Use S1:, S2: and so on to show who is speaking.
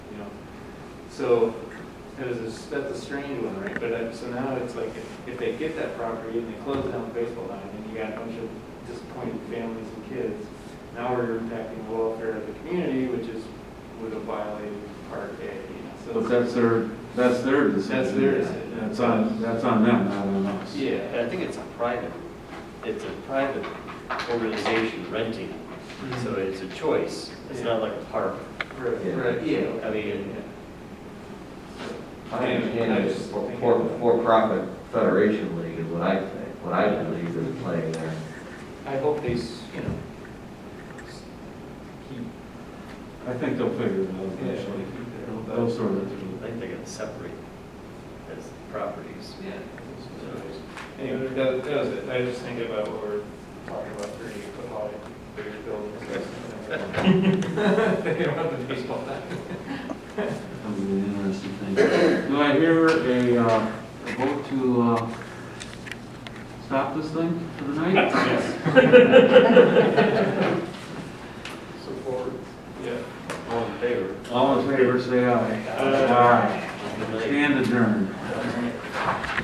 S1: So it was, a s- that's a strange one, right? But I- so now it's like, if- if they get that property and they close down the baseball diamond, and you got a bunch of disappointed families and kids, now we're impacting the welfare of the community, which is, would have violated Part A, you know,
S2: But
S1: so. it's-
S2: that's their, that's their decision.
S1: That's their decision.
S2: That's on, that's on them, not on us.
S1: Yeah.
S3: I think it's a private, it's a private organization renting, so
S1: Mm-hmm.
S3: it's a choice. It's not like a park.
S1: Right, right, yeah.
S3: I mean,
S4: I understand it's for, for, for-profit federation league is what I think, what I believe is playing there.
S1: I hope they, s- you know, s- keep,
S2: I think they'll figure it out
S1: yeah,
S2: eventually.
S1: keep their own.
S2: They'll sort it
S3: I
S2: through.
S3: think they gotta separate as properties.
S1: Yeah. Anyway, that, that was it, I was just thinking about what we're talking about, thirty foot high, bigger buildings. They don't have the baseball bat.
S2: That would be an interesting thing. Do I hear a, uh, a vote to, uh, stop this thing for the night?
S1: Support. Yeah.
S3: All in favor?
S2: All in favor, say aye.
S1: Aye.
S2: Aye. Stand adjourned.